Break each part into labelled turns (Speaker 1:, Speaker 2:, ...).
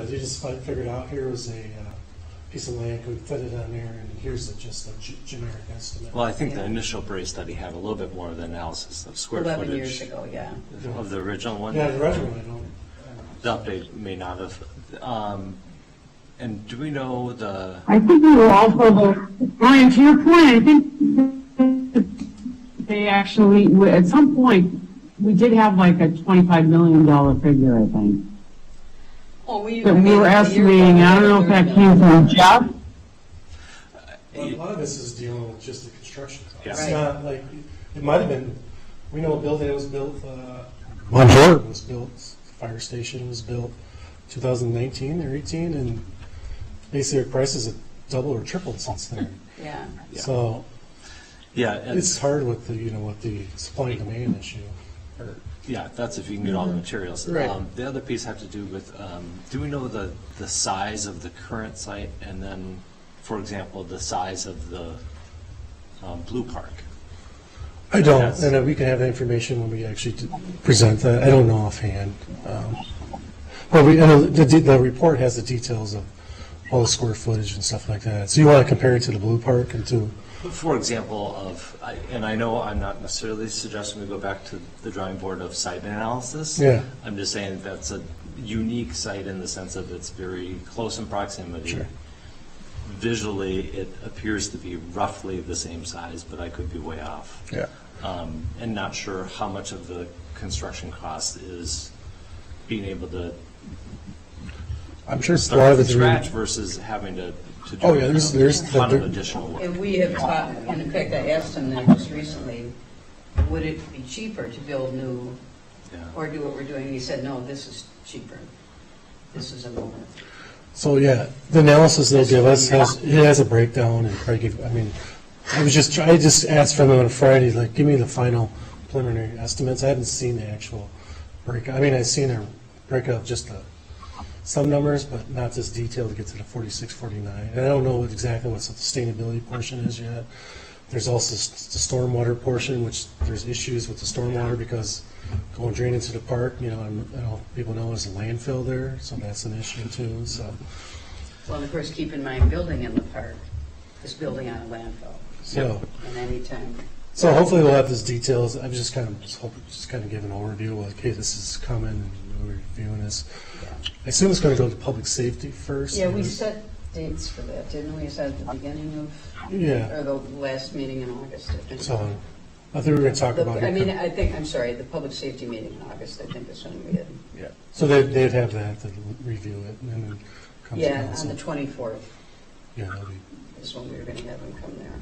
Speaker 1: they just fi- figured out here was a uh, piece of land, could fit it on there, and here's a- just a ge- generic estimate.
Speaker 2: Well, I think the
Speaker 3: Yeah.
Speaker 2: initial Bray study had a little bit more of the analysis of square footage.
Speaker 3: Eleven years ago, yeah.
Speaker 2: Of the original one.
Speaker 1: Yeah, the original, I don't,
Speaker 2: The update may not have. Um, And do we know the,
Speaker 4: I think we were also the, Brian, to your point, I think they actually, at some point, we did have like a $25 million figure, I think.
Speaker 3: Well, Oh, we.
Speaker 4: That we were estimating, I don't know if that came from Jeff.
Speaker 1: Well, A lot of this is dealing with just the construction costs.
Speaker 2: Yeah.
Speaker 1: It's
Speaker 3: Right.
Speaker 1: not like, it might have been, we know a building that was built, uh.
Speaker 5: One floor.
Speaker 1: Was built, fire station was built two thousand nineteen or eighteen, and basically the prices have doubled or tripled since then.
Speaker 3: Yeah,
Speaker 2: Yeah.
Speaker 1: So
Speaker 2: yeah, and,
Speaker 1: it's hard with the, you know, with the supply and demand issue.
Speaker 2: yeah, that's if you can get all the materials.
Speaker 1: Mm-hmm. Right.
Speaker 2: Um, The other piece had to do with, um, do we know the, the size of the current site? And then, for example, the size of the um, Blue Park?
Speaker 1: I don't,
Speaker 2: Yes.
Speaker 1: and uh, we can have that information when we actually d- present that, I don't know offhand. Um, But we, and the, the- the report has the details of all the square footage and stuff like that. So you want to compare it to the Blue Park and to,
Speaker 2: For example of, I- and I know I'm not necessarily suggesting we go back to the drawing board of site analysis.
Speaker 1: Yeah.
Speaker 2: I'm just saying that that's a unique site in the sense of it's very close in proximity.
Speaker 1: Sure.
Speaker 2: Visually, it appears to be roughly the same size, but I could be way off.
Speaker 1: Yeah.
Speaker 2: Um, And not sure how much of the construction cost is being able to
Speaker 1: I'm sure it's a lot
Speaker 2: start
Speaker 1: of
Speaker 2: from
Speaker 1: it's.
Speaker 2: scratch versus having to to do.
Speaker 1: Oh, yeah, there's- there's
Speaker 2: A
Speaker 1: the-
Speaker 2: ton of additional work.
Speaker 3: and we have talked, and in fact, I asked him that just recently, would it be cheaper to build new
Speaker 2: Yeah.
Speaker 3: or do what we're doing? He said, no, this is cheaper. This is a moment.
Speaker 1: So, yeah, the analysis they'll give us has, it has a breakdown and Craig, gave- I mean, I was just, try- I just asked from them on Friday, like, give me the final preliminary estimates. I haven't seen the actual break, I mean, I've seen a breakout of just the, some numbers, but not this detail to get to the forty-six, forty-nine. And I don't know what- exactly what the sustainability portion is yet. There's also s- the stormwater portion, which there's issues with the stormwater because going drain into the park, you know, and, you know, people know there's a landfill there, so that's an issue too, so.
Speaker 3: Well, and of course, keep in mind, building in the park is building on a landfill,
Speaker 1: So,
Speaker 3: and anytime,
Speaker 1: so hopefully we'll have those details. I'm just kind of, just hope, just kind of give an overview, like, hey, this is coming, and we're reviewing this.
Speaker 3: yeah.
Speaker 1: I assume it's gonna go to public safety first.
Speaker 3: Yeah, we
Speaker 1: and-
Speaker 3: set dates for that, didn't we? Is that at the beginning of,
Speaker 1: Yeah,
Speaker 3: or the last meeting in August? I think.
Speaker 1: so, I think we were gonna talk
Speaker 3: The-
Speaker 1: about
Speaker 3: I mean,
Speaker 1: it.
Speaker 3: I think, I'm sorry, the public safety meeting in August, I think is when we had,
Speaker 1: So they'd, they'd have that, they'd review it, and then it comes to
Speaker 3: yeah, on
Speaker 1: council.
Speaker 3: the 24th
Speaker 1: Yeah, that'll be,
Speaker 3: is when we were going to have them come there.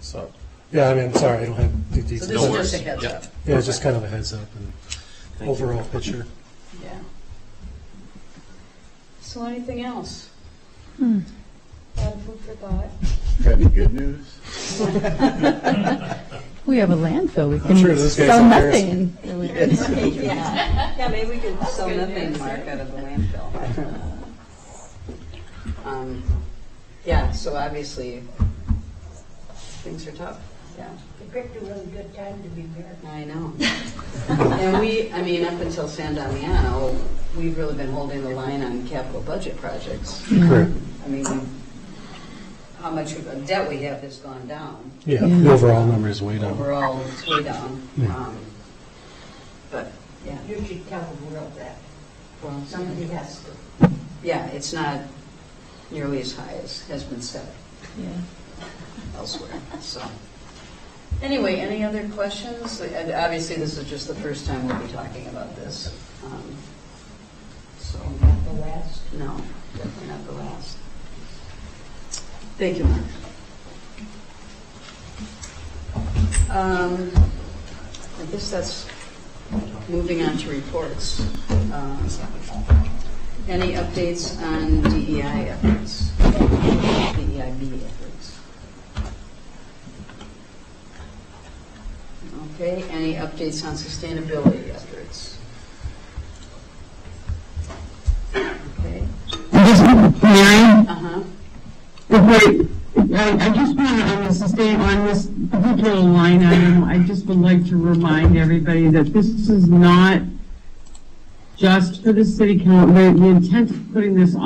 Speaker 1: so, yeah, I mean, I'm sorry, I don't have the
Speaker 3: So
Speaker 1: details.
Speaker 3: this is just a heads
Speaker 2: Yeah.
Speaker 3: up.
Speaker 1: Yeah, it's just kind of a heads up and
Speaker 2: Thank you.
Speaker 1: overall picture.
Speaker 3: Yeah. So anything else?
Speaker 6: lot of food for thought.
Speaker 7: Got any good news?
Speaker 8: We have a landfill, we can
Speaker 1: sure those guys
Speaker 8: sell
Speaker 1: are embarrassed.
Speaker 8: nothing.
Speaker 3: Yeah, maybe we could sell nothing, Mark, out of the landfill. Um, Yeah, so obviously, things are tough, yeah.
Speaker 6: You picked a really good time to be there.
Speaker 3: I know. And we, I mean, up until San Damiano, we've really been holding the line on capital budget projects.
Speaker 1: Correct.
Speaker 3: I mean, how much of debt we have has gone down.
Speaker 1: Yeah, the overall number is way down.
Speaker 3: Overall, it's way down. Um, But, yeah,
Speaker 6: You should tell the world that.
Speaker 3: well,
Speaker 6: Somebody has to.
Speaker 3: yeah, it's not nearly as high as has been said
Speaker 8: Yeah.
Speaker 3: elsewhere, so. Anyway, any other questions? And Obviously, this is just the first time we'll be talking about this. Um, So,
Speaker 6: Not the last.
Speaker 3: No, definitely not the last. Thank you, Mark. Um, I guess that's, moving on to reports. Uh, Any updates on DEI efforts? DEIB efforts? Okay, any updates on sustainability efforts? Okay,
Speaker 4: I just, Mary,
Speaker 3: uh-huh.
Speaker 4: if I, I I just want to, on the sustain, on this particular line item, I just would like to remind everybody that this is not just for the city council, the the intent of putting this